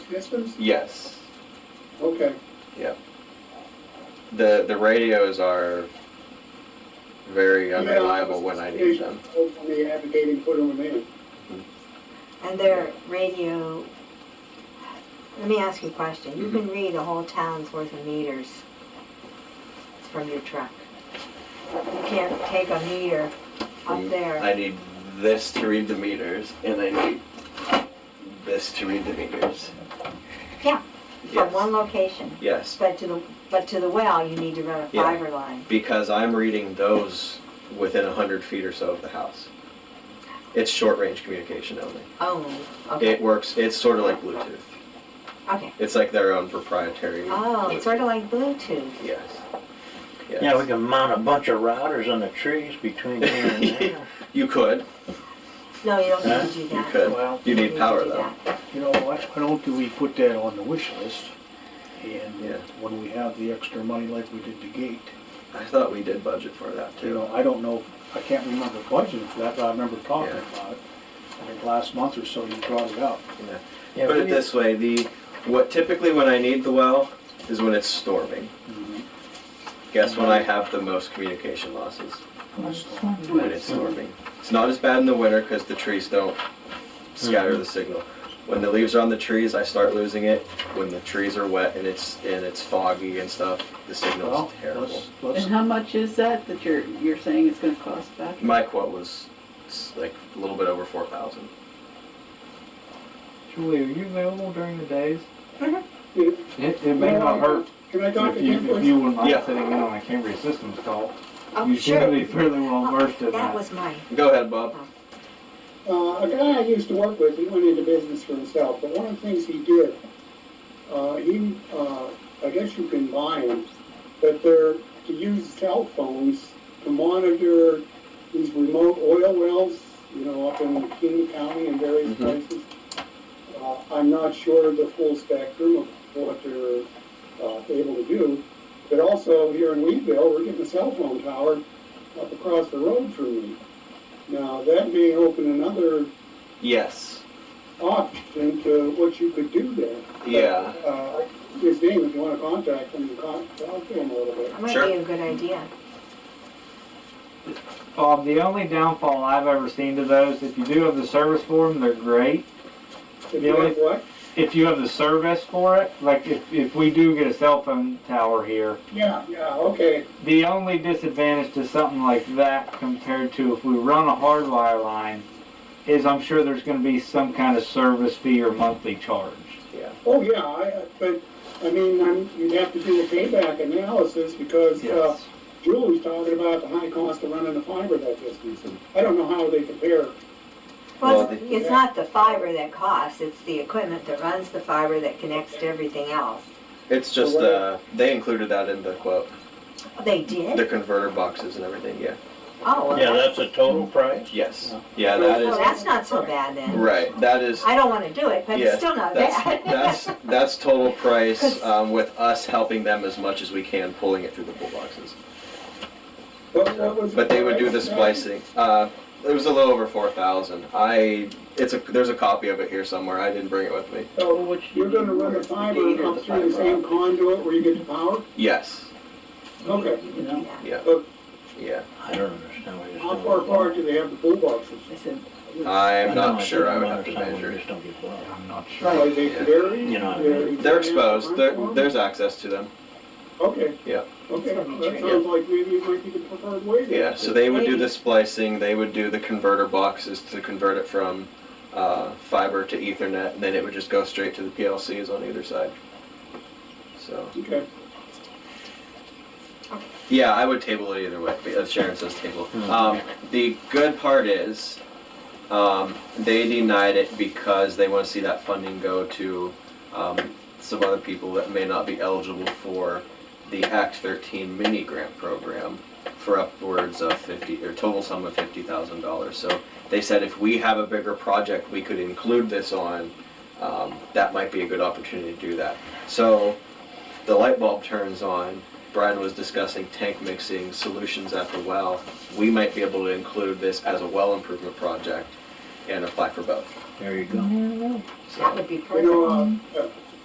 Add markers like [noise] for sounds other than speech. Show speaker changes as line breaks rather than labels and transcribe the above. distance?
Yes.
Okay,
The the radios are very unreliable when I need them.
hopefully advocating put them in.
And their radio, let me ask you a question. You
Mm-hmm.
can read a whole town's worth of meters from your truck. You can't take a meter up
From-
there.
Mm, I need this to read the meters, and I need this to read the meters.
Yeah,
Yes.
From one location,
Yes,
but to the, but to the well, you need to run a
Yeah.
fiber line.
because I'm reading those within a hundred feet or so of the house. It's short range communication only.
Only,
It
okay,
works. It's sort of like Bluetooth.
okay.
It's like their own proprietary.
Oh,
Bluetooth.
it's sort of like Bluetooth.
Yes. Yes.
Yeah, we can mount a bunch of routers on the trees between here and there.
You could.
No, you don't
Huh?
need to do
You
that.
could.
Well,
You
don't
need
to
power
do
though.
that.
you know, why why don't do we put that on the wish list? And uh,
Yeah.
when we have the extra money like we did the gate,
I thought we did budget for that
you
too.
know, I don't know, I can't remember budgeting for that, but I remember talking
Yeah.
about it. I think last month or so you brought it up.
Yeah,
Put
we
it
need-
this way, the, what typically when I need the well is when it's storming. Guess when I have the most communication losses? When it's storming. It's not as bad in the winter because the trees don't scatter the signal. When the leaves are on the trees, I start losing it. When the trees are wet and it's, and it's foggy and stuff, the signal
Well,
is terrible.
let's, let's,
And how much is that that you're, you're saying it's gonna cost back?
My quote was s- like a little bit over four thousand.
Julie, are you available during the days?
Mhm.
It, it may not hurt
Can I talk
if
to
you,
Jim
if
please?
you wouldn't mind
Yeah.
sitting in on a Cambria Systems call.
Oh,
You seem to
sure. Oh,
be fairly well versed in
That
that.
was mine.
Go ahead, Bob.
Uh-huh.
Uh, a guy I used to work with, he went into business for himself, but one of the things he did, uh, he, uh, I guess you can buy them, but they're to use cell phones to monitor these remote oil wells, you know, up in King County and various
Mhm.
places. Uh, I'm not sure of the full spectrum of what they're, uh, able to do, but also here in Weedville, we're getting a cell phone tower up across the road from me. Now, that may open another
Yes.
option to what you could do there.
Yeah.
Uh, His name, if you want to contact him, con- talk to him a little bit.
That might
Sure.
be a good idea.
Bob, the only downfall I've ever seen to those, if you do have the service for them, they're great.
If you have what?
If you have the service for it, like if, if we do get a cell phone tower here,
Yeah, yeah, okay.
the only disadvantage to something like that compared to if we run a hardwire line is I'm sure there's gonna be some kind of service fee or monthly charge.
Oh, yeah, I, I- but, I mean, I'm, you'd have to do a payback analysis because, uh,
Yes.
Julie's talking about the high cost of running the fiber that distance. I don't know how they compare.
Well,
Well,
the-
it's not the fiber that costs, it's the equipment that runs the fiber that connects to everything else.
It's just, uh, they included that in the quote,
They
the
did?
converter boxes and everything, yeah.
Oh, well,
Yeah,
that-
that's the total price?
Yes. Yeah, that
well,
is,
that's not so bad then.
right, that is,
I don't want to do it, but
Yeah,
it's still not
that's, [laughs]
bad.
that's, that's total [laughs] price, um, with us helping them as much as we can, pulling it through the pull boxes.
What- what
So,
was
But they would do the
price?
splicing, uh, it was a little over four thousand. I, it's a, there's a copy of it here somewhere, I didn't bring it with me.
So
Which
you're gonna run the fiber up through the same conduit where you get the power?
Yes,
Okay.
You know,
yeah, yeah.
I don't understand what you're saying.
How far apart do they have the pool boxes?
I said,
I'm
know,
not sure, I
don't
would have to
understand why
measure.
you just don't get blown.
I'm not sure.
Are they
Yeah.
very?
You know what I
very-
They're exposed, there, there's access to them,
Okay.
Yeah.
Okay,
That's what I'm
that
trying-
sounds like maybe it might be the preferred way then.
yeah, so they would do the splicing, they would do the converter boxes to convert it from, uh, fiber to ethernet, and then it would just go straight to the PLCs on either side. So,
Okay,
yeah, I would table it either way, but as Sharon says table. Um, the good part is, um, they denied it because they wanna see that funding go to, um, some other people that may not be eligible for the Act thirteen mini grant program for upwards of fifty, or total sum of fifty thousand dollars. So they said if we have a bigger project we could include this on, um, that might be a good opportunity to do that. So the light bulb turns on, Brian was discussing tank mixing solutions at the well. We might be able to include this as a well improvement project and apply for both.
There you go.
So-
That would be
you know,
perfect.
uh, uh,